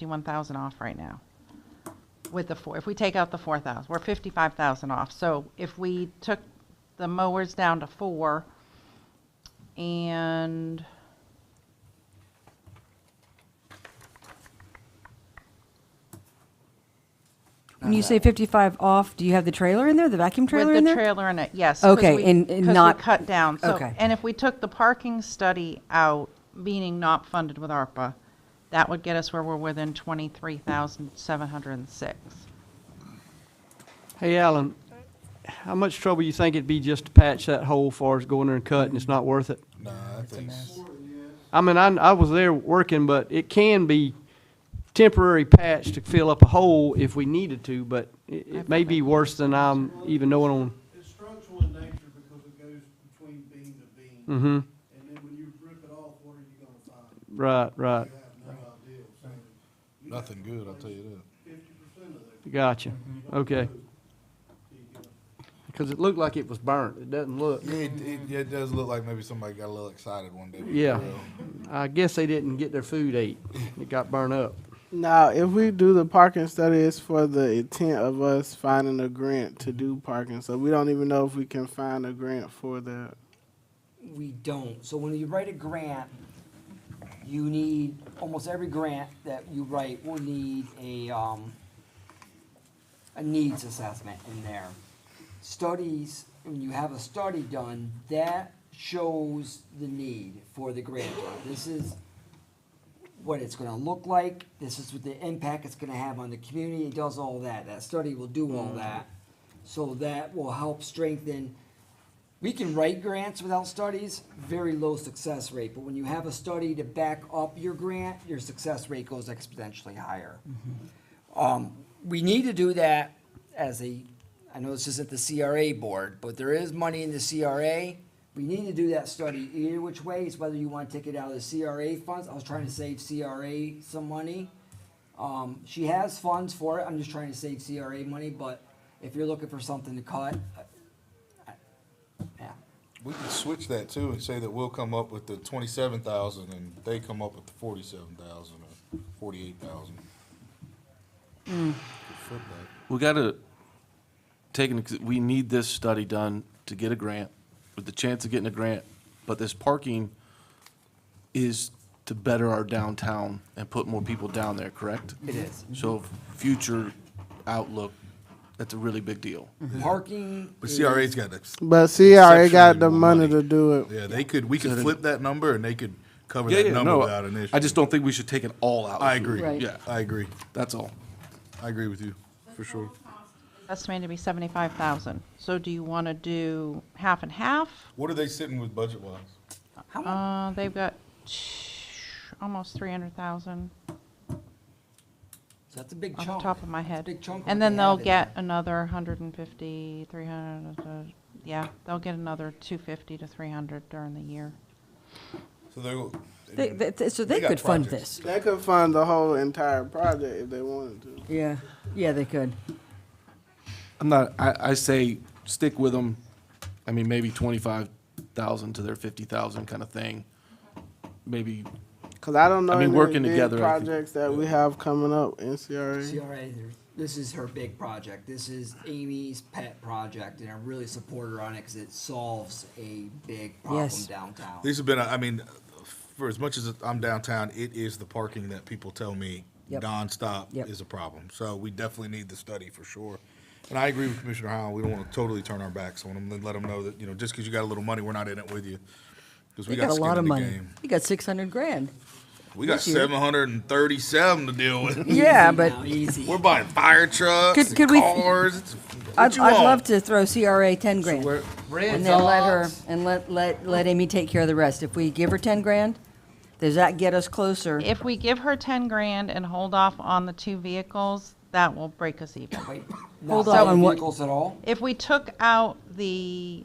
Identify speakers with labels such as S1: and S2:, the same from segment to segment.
S1: 51,000 off right now with the four, if we take out the 4,000, we're 55,000 off. So if we took the mowers down to four and
S2: When you say 55 off, do you have the trailer in there, the vacuum trailer
S1: with
S2: in
S1: the
S2: there?
S1: trailer in it, yes. 'cause
S2: Okay,
S1: we-
S2: and- and
S1: 'cause we
S2: not-
S1: cut down. So-
S2: okay.
S1: And if we took the parking study out, meaning not funded with ARPA, that would get us where we're within 23,706.
S3: Hey, Alan, how much trouble you think it'd be just to patch that hole far as going there and cutting? It's not worth it.
S4: Nah, I think,
S3: I mean, I, I was there working, but it can be temporary patch to fill up a hole if we needed to, but it, it may be worse than I'm even knowing on.
S5: It's structural in nature because it goes between beam to beam.
S3: Mm-hmm,
S5: And then when you rip it off, what are you gonna find?
S3: right, right,
S5: You have no idea. So
S4: nothing good, I'll tell you
S5: fifty percent of that,
S3: gotcha, okay. Because it looked like it was burnt, it doesn't look.
S4: that. Yeah, it, it, yeah, it does look like maybe somebody got a little excited one day. with the
S3: Yeah.
S4: grill.
S3: I guess they didn't get their food ate, it got burnt up.
S6: Now, if we do the parking study, it's for the intent of us finding a grant to do parking. So we don't even know if we can find a grant for that.
S7: We don't. So when you write a grant, you need, almost every grant that you write will need a, um, a needs assessment in there. Studies, when you have a study done, that shows the need for the grant. This is what it's gonna look like, this is what the impact it's gonna have on the community, it does all that. That study will do all that. So that will help strengthen we can write grants without studies, very low success rate, but when you have a study to back up your grant, your success rate goes exponentially higher. Um, we need to do that as a, I know this isn't the CRA board, but there is money in the CRA. We need to do that study either which way, it's whether you wanna take it out of the CRA funds, I was trying to save CRA some money. Um, she has funds for it, I'm just trying to save CRA money, but if you're looking for something to cut, I- I- yeah.
S4: We can switch that too and say that we'll come up with the twenty-seven thousand and they come up with the forty-seven thousand or forty-eight thousand.
S8: We gotta take, into consi- we need this study done to get a grant, with the chance of getting a grant, but this parking is to better our downtown and put more people down there, correct?
S7: It is.
S8: So future outlook, that's a really big deal.
S7: Parking.
S4: But
S7: is-
S4: CRA's got to,
S6: But CRA
S4: Exceptionally
S6: got the
S4: more
S6: money
S4: money.
S6: to do it.
S4: yeah, they could, we could flip that number and they could cover
S8: Yeah,
S4: that
S8: yeah,
S4: number
S8: no,
S4: without an issue.
S8: I just don't think we should take it all out.
S4: I agree.
S2: Right.
S8: Yeah,
S4: I agree.
S8: that's all.
S4: I agree with you, for sure.
S1: Estimated to be 75,000. So do you want to do half and half?
S4: What are they sitting with budget wise?
S1: Uh, they've got almost 300,000
S7: So That's a big
S1: off
S7: chunk.
S1: the top of my
S7: That's a
S1: head.
S7: big chunk of what
S1: And then
S7: they
S1: they'll
S7: have in there.
S1: get another 150, 300, uh, uh, yeah, they'll get another 250 to 300 during the year.
S4: So they're.
S2: They- they- th- So they
S4: got
S2: could fund
S4: projects.
S2: this.
S6: They could fund the whole entire project if they wanted to.
S2: Yeah, yeah, they could.
S8: I'm not, I, I say stick with them. I mean, maybe twenty-five thousand to their fifty thousand kind of thing. Maybe
S6: Cause I don't know
S8: I mean,
S6: any
S8: working
S6: big
S8: together, I think-
S6: projects that we have coming up in CRA.
S7: CRA, there- this is her big project. This is Amy's pet project, and I really support her on it because it solves a big problem
S2: Yes.
S7: downtown.
S4: These have been, I mean, for as much as I'm downtown, it is the parking that people tell me
S2: Yep.
S4: nonstop
S2: Yep.
S4: is a problem. So we definitely need the study for sure. And I agree with Commissioner Howell. We don't want to totally turn our backs on them and let them know that, you know, just because you got a little money, we're not in it with you. Because
S2: They
S4: we
S2: got
S4: got
S2: a lot
S4: skin
S2: of
S4: in the
S2: money.
S4: game.
S2: They got 600 grand.
S4: We got
S2: This year.
S4: seven hundred and thirty-seven to deal with.
S2: Yeah,
S7: Easy
S2: but
S7: now, Easy.
S4: We're buying fire trucks
S2: Could-
S4: and
S2: could we-
S4: cars. It's- what
S2: I'd,
S4: you
S2: I'd
S4: want?
S2: love to throw CRA 10 grand.
S3: Where-
S2: And then let her, and let, let, let Amy take care of the rest. If we give her 10 grand, does that get us closer?
S1: If we give her 10 grand and hold off on the two vehicles, that will break us even.
S7: Wait,
S2: Hold
S7: Not selling
S2: on, what-
S7: vehicles at all?
S1: If we took out the,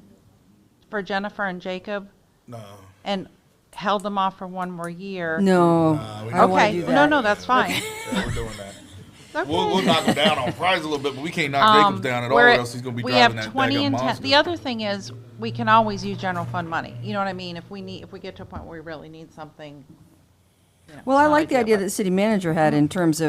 S1: for Jennifer and Jacob
S4: No.
S1: and held them off for one more year.
S2: No,
S4: we
S2: I
S4: don't
S2: don't want to
S1: Okay,
S2: do
S1: no,
S2: that.
S1: no, that's fine.
S4: Yeah, we're doing that.
S1: Okay.
S4: We'll, we'll knock them down on price a little bit, but we can't knock Jacobs down at all,
S1: Um, We're
S4: or
S1: at-
S4: else he's gonna be
S1: we
S4: driving
S1: have
S4: that
S1: 20
S4: daggum
S1: and 10
S4: monster.
S1: The other thing is, we can always use general fund money. You know what I mean? If we need, if we get to a point where we really need something, you know,
S2: Well, I
S1: not
S2: like the idea
S1: but-
S2: that the city manager had in terms of